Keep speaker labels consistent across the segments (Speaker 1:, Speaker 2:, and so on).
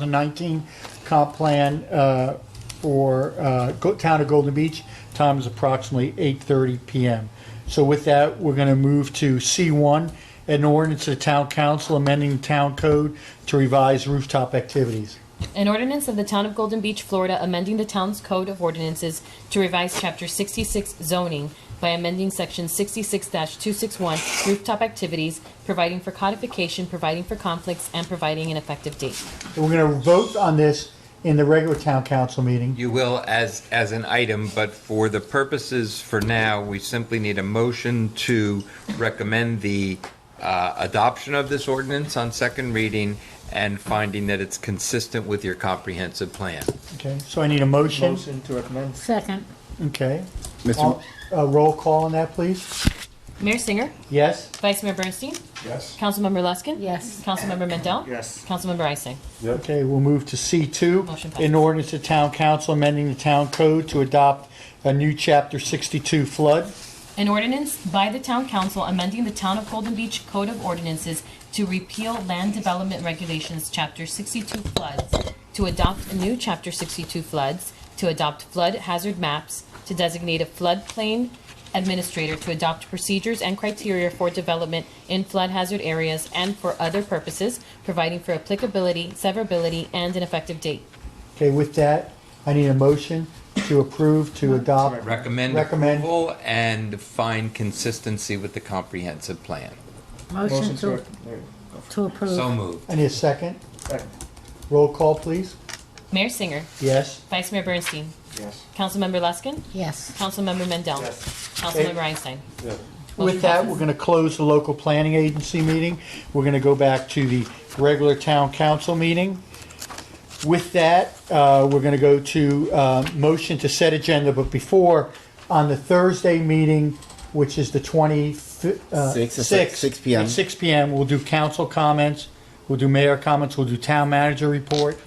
Speaker 1: 2019 comp plan uh, for uh, Go- Town of Golden Beach. Time is approximately 8:30 PM. So with that, we're going to move to C1, an ordinance of the Town Council amending Town Code to revise rooftop activities.
Speaker 2: An ordinance of the Town of Golden Beach, Florida, amending the town's code of ordinances to revise Chapter 66 zoning by amending Section 66-261 rooftop activities, providing for codification, providing for conflicts, and providing an effective date.
Speaker 1: And We're going to vote on this in the regular Town Council meeting.
Speaker 3: You will as, as an item, but for the purposes for now, we simply need a motion to recommend the uh, adoption of this ordinance on second reading and finding that it's consistent with your comprehensive plan.
Speaker 1: Okay, so I need a motion.
Speaker 4: Motion to recommend.
Speaker 5: Second,
Speaker 1: Okay.
Speaker 6: Mr.
Speaker 1: All- uh, Roll call on that, please.
Speaker 2: Mayor Singer,
Speaker 1: Yes?
Speaker 2: Vice Mayor Bernstein,
Speaker 4: Yes.
Speaker 2: Councilmember Luskin.
Speaker 5: Yes.
Speaker 2: Councilmember Mendel.
Speaker 4: Yes.
Speaker 2: Councilmember Ising.
Speaker 1: Okay, we'll move to
Speaker 2: Motion
Speaker 1: C2,
Speaker 2: passes.
Speaker 1: an ordinance to town council amending the town code to adopt a new chapter 62 flood.
Speaker 2: An ordinance by the Town Council amending the Town of Golden Beach Code of Ordinances to repeal land development regulations, Chapter 62 floods, to adopt a new Chapter 62 floods, to adopt flood hazard maps, to designate a floodplain administrator, to adopt procedures and criteria for development in flood hazard areas and for other purposes, providing for applicability, severability, and an effective date.
Speaker 1: Okay, with that, I need a motion to approve to adopt.
Speaker 3: Recommend
Speaker 1: Recommend.
Speaker 3: approval and find consistency with the comprehensive plan.
Speaker 5: motion to,
Speaker 4: recommend.
Speaker 5: to
Speaker 3: So
Speaker 5: approve.
Speaker 3: moved.
Speaker 1: I need a second.
Speaker 4: Second.
Speaker 1: Roll call, please.
Speaker 2: Mayor Singer,
Speaker 1: Yes?
Speaker 2: Vice Mayor Bernstein,
Speaker 4: Yes.
Speaker 2: Councilmember Luskin,
Speaker 5: Yes,
Speaker 2: Councilmember Mendel,
Speaker 4: Yes.
Speaker 2: Councilmember Einstein.
Speaker 1: With that,
Speaker 2: passes.
Speaker 1: we're going to close the local planning agency meeting. We're going to go back to the regular town council meeting. With that, uh, we're going to go to uh, motion to set agenda, but before, on the Thursday meeting, which is the uh, 26th.
Speaker 6: Six, it's like 6 p.m.
Speaker 1: At 6 p.m., we'll do council comments, we'll do mayor comments, we'll do town manager report,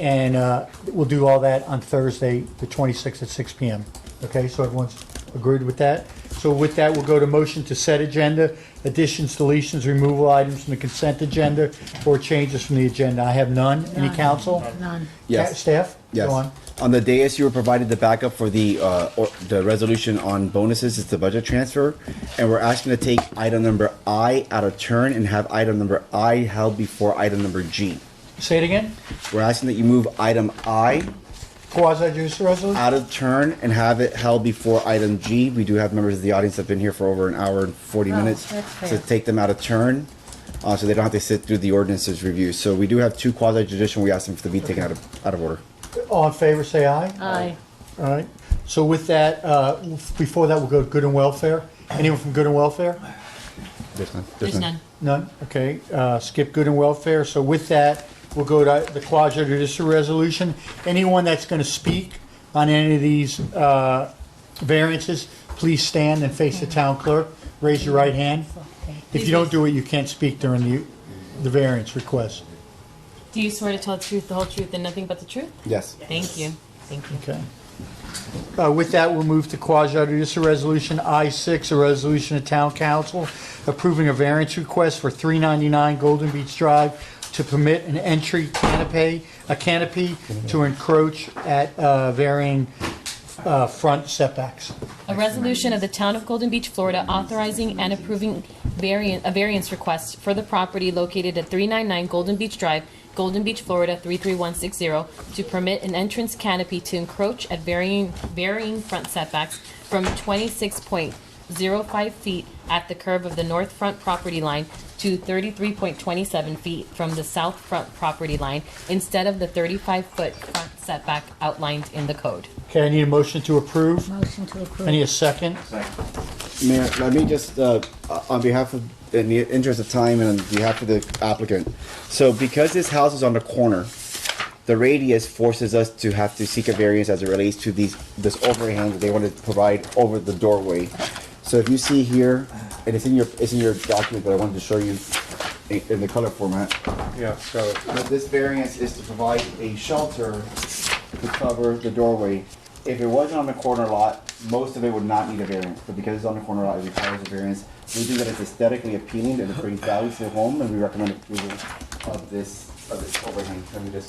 Speaker 1: and uh, we'll do all that on Thursday, the 26th at 6 p.m. Okay, so everyone's agreed with that? So with that, we'll go to motion to set agenda, additions, deletions, removal items from the consent agenda, or changes from the agenda. I have none. Any
Speaker 5: None.
Speaker 1: council?
Speaker 5: none,
Speaker 1: Ca-
Speaker 6: Yes.
Speaker 1: Staff?
Speaker 6: Yes.
Speaker 1: Go on.
Speaker 6: On the dais, you were provided the backup for the, uh, or, the resolution on bonuses, it's the budget transfer. And we're asking to take item number I out of turn and have item number I held before item number G.
Speaker 1: Say it again?
Speaker 6: We're asking that you move item I
Speaker 1: Quasi-judicial resolution?
Speaker 6: out of turn and have it held before item G. We do have members of the audience that have been here for over an hour and forty
Speaker 5: Oh,
Speaker 6: minutes.
Speaker 5: that's
Speaker 6: So
Speaker 5: fair.
Speaker 6: take them out of turn, uh, so they don't have to sit through the ordinances review. So we do have two quasi judicial, we ask them to be taken out of, out of order.
Speaker 1: All in favor, say aye.
Speaker 5: aye,
Speaker 1: All right, so with that, uh, before that, we'll go to good and welfare. Anyone from good and welfare?
Speaker 6: There's none.
Speaker 2: There's none.
Speaker 1: None? Okay, uh, skip good and welfare. So with that, we'll go to the quasi judicial resolution. Anyone that's going to speak on any of these uh, variances, please stand and face the town clerk. Raise your right hand. If you don't do it, you can't speak during the, the variance request.
Speaker 2: Do you swear to tell the truth, the whole truth, and nothing but the truth?
Speaker 6: Yes.
Speaker 2: Thank you. Thank you.
Speaker 1: Okay. Uh, With that, we'll move to quasi-judicial resolution I-6, a resolution of town council approving a variance request for 399 Golden Beach Drive to permit an entry canopy, a canopy to encroach at uh, varying uh, front setbacks.
Speaker 2: A resolution of the Town of Golden Beach, Florida, authorizing and approving variant, a variance request for the property located at 399 Golden Beach Drive, Golden Beach, Florida, 33160, to permit an entrance canopy to encroach at varying, varying front setbacks from 26.05 feet at the curve of the north front property line to 33.27 feet from the south front property line instead of the 35-foot front setback outlined in the code.
Speaker 1: Okay, I need a motion to approve.
Speaker 5: motion to
Speaker 1: I need a
Speaker 5: approve.
Speaker 1: second.
Speaker 6: Mayor, let me just, uh, on behalf of, in the interest of time and on behalf of the applicant, so because this house is on the corner, the radius forces us to have to seek a variance as it relates to these, this overhang that they want to provide over the doorway. So if you see here, and it's in your, it's in your document that I wanted to show you in, in the color format,
Speaker 4: Yeah, so.
Speaker 6: but this variance is to provide a shelter to cover the doorway. If it wasn't on the corner lot, most of it would not need a variance, but because it's on the corner lot, it requires a variance. We think that it's aesthetically appealing and it brings value to the home, and we recommend approval of this of this overhang, let me just